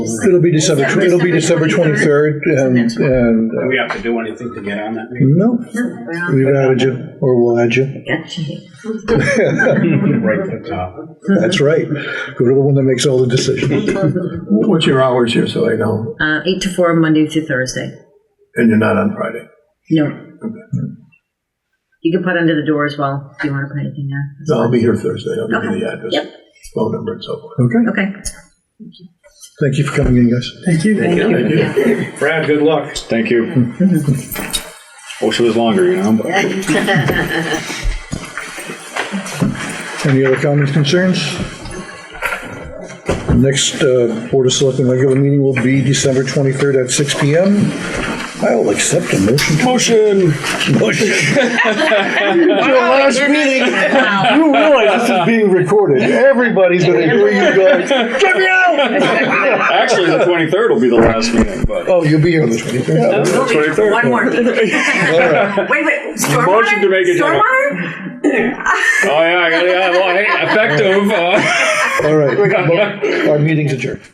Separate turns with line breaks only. It'll be December, tw- it'll be December
December
23rd, and,
Next one.
and,
Do
uh,
we have to do anything to get on that meeting?
no,
Uh,
we've added you, or we'll add
Mm-hmm.
you.
Right to the top.
That's right. Go to the one that makes all the decisions.
What's your hours here, so I know?
Uh, eight to four, Monday through Thursday.
And you're not on Friday?
No. You can put under the door as well, if you want to put anything there.
No, I'll be here Thursday. I'll give you the
Okay.
address,
Yep,
phone number and so forth.
Okay?
okay.
Thank you for coming in, guys.
Thank you. Thank you.
Brad, good luck.
Thank you. Wish it was longer, you know, but
Any other comments, concerns? The Next uh, Board of Selectmen regular meeting will be December 23rd at 6 PM. I'll accept a motion.
motion.
Motion.
last meeting.
Wow.
You realize this is being recorded. Everybody's gonna hear you guys. Get me out!
Actually, the twenty third will be the last meeting, but
Oh, you'll be here on the 23rd.
twenty third.
One more. Wait, wait, stormwater?
Motion to make it general.
Stormwater?
Oh yeah, I got yeah. Well, hey, effective. Uh,
All right. Our meeting's adjourned.